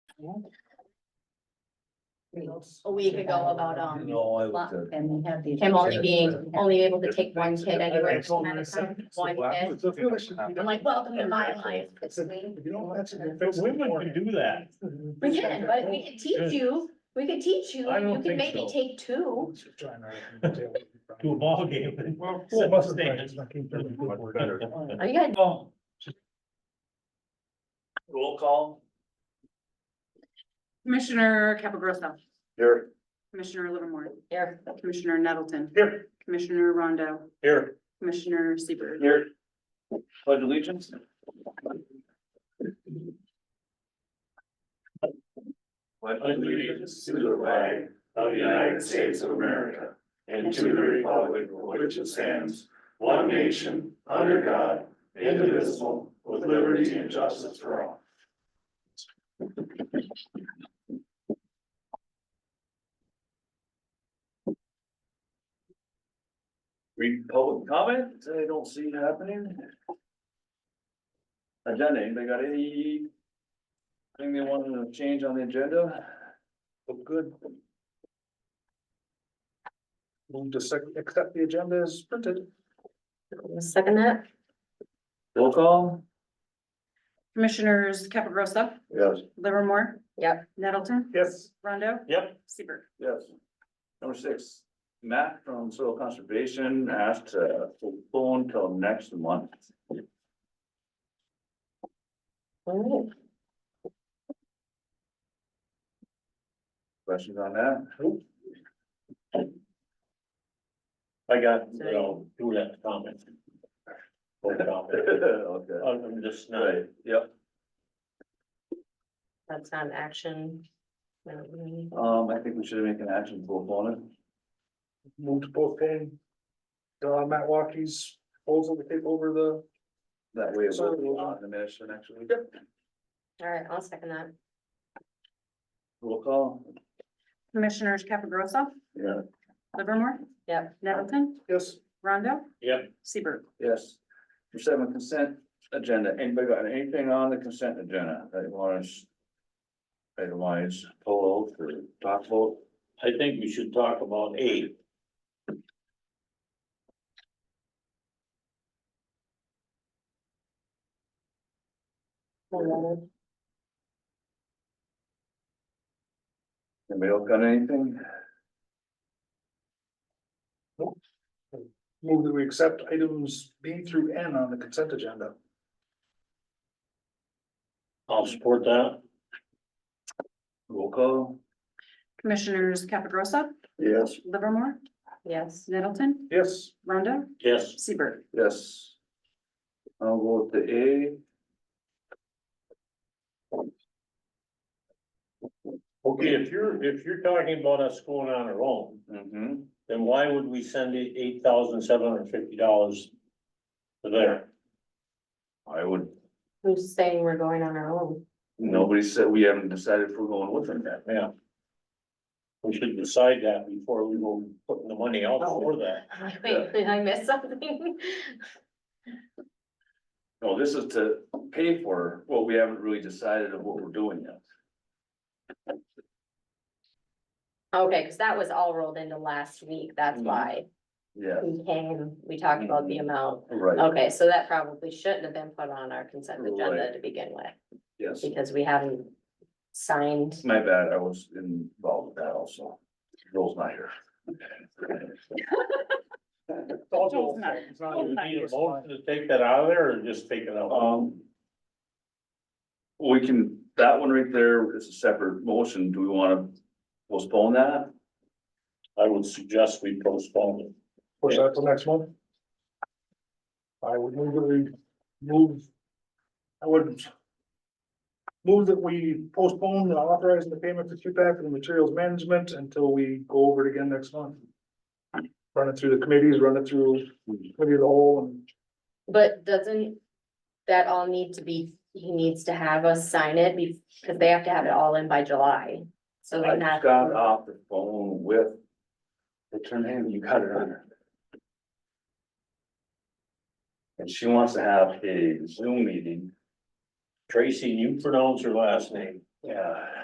a week ago about, um, No, I lot- looked at. And we have the. him only being, only able to take one kid anywhere. at a time, One kid. I'm like, welcome to my life. You know, that's. Women can do that. We can, but we could teach you, we could teach you, I don't you could think maybe so. take two. To a ballgame. Well, Sit what's the down. difference between thirty and forty? Are you guys, Oh, Roll call. Commissioner Capagrosa, Here. Commissioner Livermore, here, Commissioner Nettleton, Here. Commissioner Rondo, Here. Commissioner Seaver. Here. Pledge allegiance. Pledge allegiance to the flag of the United States of America and to the republic for which it stands, one nation, under God, indivisible, with liberty and justice for all. Read public comment, I don't see it happening. Agenda, anybody got any? Thing they wanted to change on the agenda? Look good. Move to sec- accept the agenda as printed. second that? Roll call? Commissioners Capagrosa, Yes. Livermore. Yep. Nettleton, Yes. Rondo, Yep. Seaver. Yes. Number six, Matt from Soil Conservation asked uh, to postpone till next month. All right. Questions on that? I got, you know, do that comment. Don't comment. Okay. I'm just not. Right, yep. That's not an action. We don't need- Um, I think we should make an action to postpone it. Move to postpone. Uh, Matt Walkie's proposal to take over the, That way it So- will be on the mission next week. All right, I'll second that. Roll call. Commissioners Capagrosa, Yeah. Livermore. Yep. Nettleton, yes, Rondo, Yep, Seaver. Yes. Number seven, consent agenda. Anybody got anything on the consent agenda that you want us? Itemize, pull out, or talk about? I think we should talk about A. Anybody else got anything? move that we accept items B through N on the consent agenda. I'll support that. Roll call? Commissioners Capagrosa, Yes. Livermore, Yes, Nettleton, Yes, Rondo, Yes, Seaver. Yes. I'll go with the okay, if you're, if you're talking about us going on our own, A. Mm-hmm. then why would we send eight, eight thousand seven hundred and fifty dollars to there? I would, who's saying we're going on our own? nobody said, we haven't decided if we're going with them yet. Yeah. We should decide that before we go putting the money out for that. I'm like, Wait, did I miss something? No, this is to pay for, well, we haven't really decided of what we're doing yet. Okay, because that was all rolled into last week, that's Mm. Mhm. why Yeah, we came, we talked about the amount. right, Okay, so that probably shouldn't have been put on our consent agenda Right. to begin with, yes. because we haven't signed. It's my bad, I was involved with that also. Joel's not here. Joel's not- It's not Do we even- need a motion to take that out of there or just take it out? Um. We can, that one right there is a separate motion. Do we wanna postpone that? I would suggest we postpone it. push that till next month. I would move that we move. I would. Move that we postpone the authorizing the payment to QPAC and materials management until we go over it again next month. Run it through the committees, run it through committee of the whole and. But doesn't that all need to be, he needs to have us sign it because they have to have it all in by July. So I then just that's, got off the phone with. It's her name, you got it on her. And she wants to have a Zoom meeting. Tracy, you pronounce her last name. Yeah.